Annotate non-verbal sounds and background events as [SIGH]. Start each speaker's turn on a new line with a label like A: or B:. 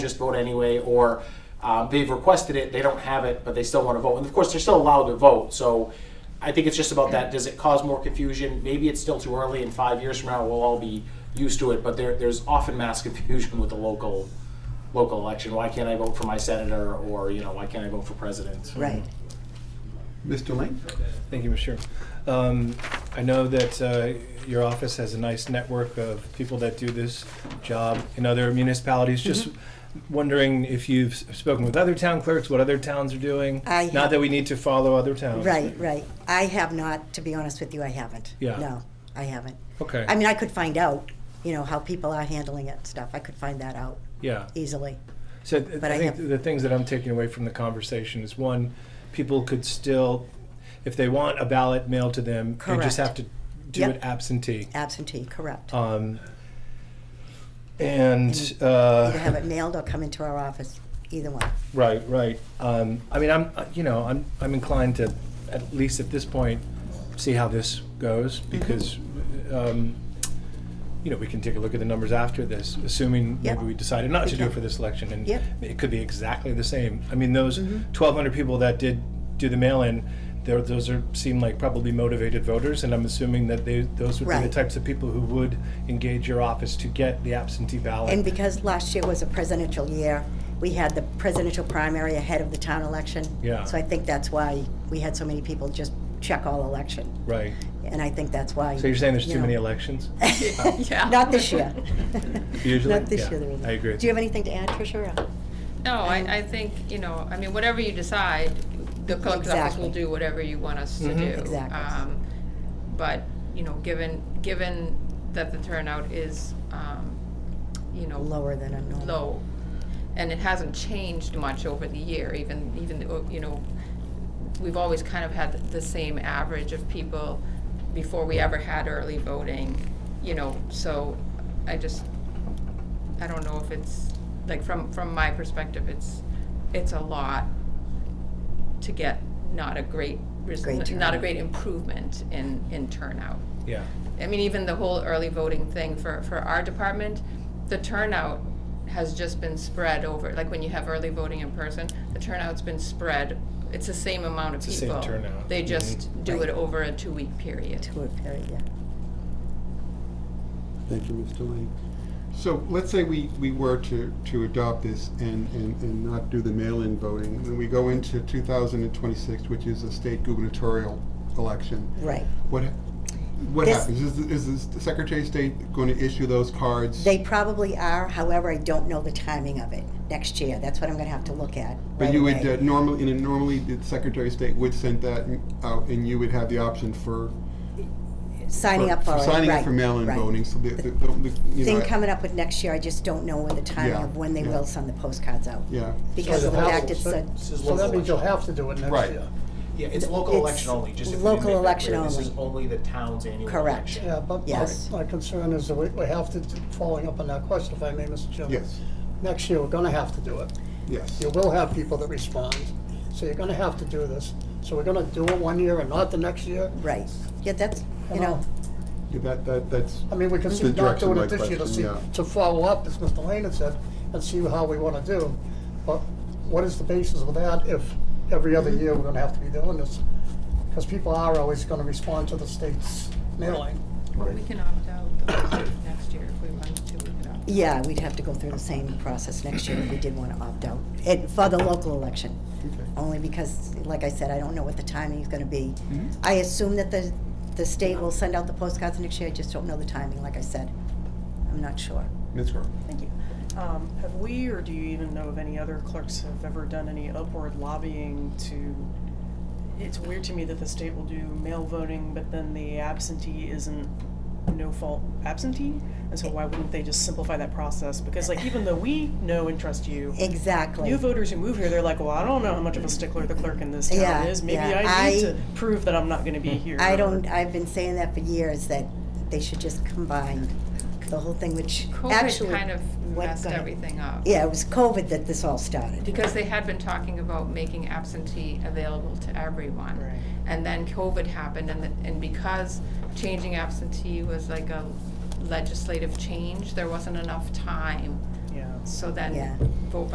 A: just vote anyway, or uh, they've requested it, they don't have it, but they still want to vote. And of course, they're still allowed to vote, so I think it's just about that. Does it cause more confusion? Maybe it's still too early, and five years from now, we'll all be used to it, but there, there's often mass [LAUGHS] confusion with the local, local election. Why can't I vote for my senator, or, you know, why can't I vote for president?
B: Right.
C: Mr. Lane?
D: Thank you, Mr. Chair. Um, I know that uh, your office has a nice network of people that do this job in other municipalities. Just
B: Mm-hmm.
D: wondering if you've s- spoken with other town clerks, what other towns are doing?
B: I have-
D: Not that we need to follow other towns.
B: Right, right. I have not, to be honest with you, I haven't.
D: Yeah.
B: No, I haven't.
D: Okay.
B: I mean, I could find out, you know, how people are handling it and stuff. I could find that out
D: Yeah.
B: easily.
D: So th-
B: But I
D: I think
B: have-
D: the things that I'm taking away from the conversation is one, people could still, if they want a ballot mailed to them, they
B: Correct.
D: just have to do
B: Yep.
D: it absentee.
B: Absentee, correct.
D: Um, and uh,
B: Either have it mailed or come into our office, either one.
D: Right, right. Um, I mean, I'm, uh, you know, I'm, I'm inclined to, at least at this point, see how this goes
B: Mm-hmm.
D: because, um, you know, we can take a look at the numbers after this, assuming
B: Yep.
D: maybe we decided not
B: We
D: to do
B: can.
D: it for this election, and
B: Yep. Mm-hmm.
D: it could be exactly the same. I mean, those 1,200 people that did do the mail-in, they're- those are seem like probably motivated voters, and I'm assuming that they those would be
B: Right.
D: the types of people who would engage your office to get the absentee ballot.
B: And because last year was a presidential year, we had the presidential primary ahead of the town election.
D: Yeah.
B: So I think that's why we had so many people just check all election.
D: right.
B: And I think that's why.
D: So you're saying there's too
B: you know.
D: many elections?
E: [LAUGHS]
B: Not this year.
D: Usually?
B: Not this
D: Yeah,
B: year, there isn't.
D: I agree.
B: Do you have anything to add, Tricia? or-
E: No, I, I think, you know, I mean, whatever you decide, the collector's office
B: Exactly.
E: will do whatever you want us to
D: Mhm.
E: do.
B: Exactly.
E: Um, But, you know, given, given that the turnout is, um, you know,
B: Lower than a normal.
E: low, and it hasn't changed much over the year, even, even, uh, you know, we've always kind of had the same average of people before we ever had early voting, you know, so I just, I don't know if it's, like, from, from my perspective, it's, it's a lot to get not a great, res-
B: Great
E: not a
B: turnout.
E: great improvement in, in turnout.
D: Yeah.
E: I mean, even the whole early voting thing for, for our department, the turnout has just been spread over, like when you have early voting in person, the turnout's been spread, it's the same amount of
D: It's the same
E: people.
D: turnout. Mm-hmm.
E: They just do
B: Right.
E: it over a two-week period.
B: To a period, yeah.
C: Thank you, Mr. Lane. So let's say we, we were to, to adopt this and, and, and not do the mail-in voting, and then we go into two thousand and twenty-six, which is a state gubernatorial election.
B: Right.
C: What, ha- what
B: This-
C: happens? Is, the- is the Secretary of State going to issue those cards?
B: They probably are, however, I don't know the timing of it next year. That's what I'm gonna have to look at.
C: But
B: right
C: you would
B: away.
C: uh, normally, and normally the Secretary of State would send that out, and you would have the option for.
B: Signing up for it,
C: Signing up
B: right,
C: uh, for mail-in
B: right.
C: voting, so the, the,
B: The
C: the- you know.
B: Thing
C: I-
B: coming up with next year, I just don't know what the timing
C: Yeah,
B: of when they
C: yeah.
B: will send the postcards out.
C: Yeah.
B: Because of the fact it's a,
F: So that means you'll have to do it next
C: Right.
F: year.
A: Yeah, it's local
B: It's
A: election only, just if we
B: local
A: didn't make that
B: election
A: clear, this is
B: only.
A: only the town's annual
B: Correct.
A: election.
F: Yeah, but my-
B: Yes.
F: my concern is that we we have to, do- following up on that question, if I may, Mr. Chairman.
C: Yes,
F: Next year, we're gonna have to do it.
C: yes.
F: You will have people that respond, so you're gonna have to do this. So we're gonna do it one year and not the next year?
B: right. Yeah, that's, you
F: Come
B: know,
F: on.
C: Yeah, That, that, that's,
F: I mean, we could
C: That's
F: see
C: the
F: not
C: direction
F: doing
C: of
F: it
C: my
F: this year to see,
C: question, yeah.
F: to follow up, as Mr. Lane had said, and see how we wanna do. But what is the basis of that if every other
C: Mm-hmm.
F: year we're gonna have to be doing this? Because people are always gonna respond to the state's mailing.
E: But we can opt out next year if we wanted to, we could opt out.
B: yeah, we'd have to go through the same process next year if we did wanna opt out. And for the local election, only because, like I said, I don't know what the timing is gonna be. I assume that the, the state will send out the postcards next year, I just don't know the timing, like I said. I'm not sure.
C: Ms. Grover.
G: Thank you. Um, have we, or do you even know of any other clerks have ever done any upward lobbying to? It's weird to me that the state will do mail voting, but then the absentee isn't no fault absentee, and so why wouldn't they just simplify that process? Because like even though we know and trust you.
B: Exactly.
G: New voters who move here, they're like, well, I don't know how much of a stickler the clerk in this town
B: Yeah,
G: is. Maybe
B: yeah.
G: I need
B: I- Mm-hmm.
G: to prove that I'm not going to be here.
B: I
G: or-
B: don't, I've been saying that for years, that they should just combine the whole thing, which actually.
E: COVID kind of
B: what
E: messed
B: got-
E: everything up.
B: Yeah, it was COVID that this all started.
E: Because they had been talking about making absentee available to everyone.
G: Right.
E: And then COVID happened and, the- and because changing absentee was like a legislative change, there wasn't enough time
G: Yeah.
E: so
B: Yeah.
E: then vote by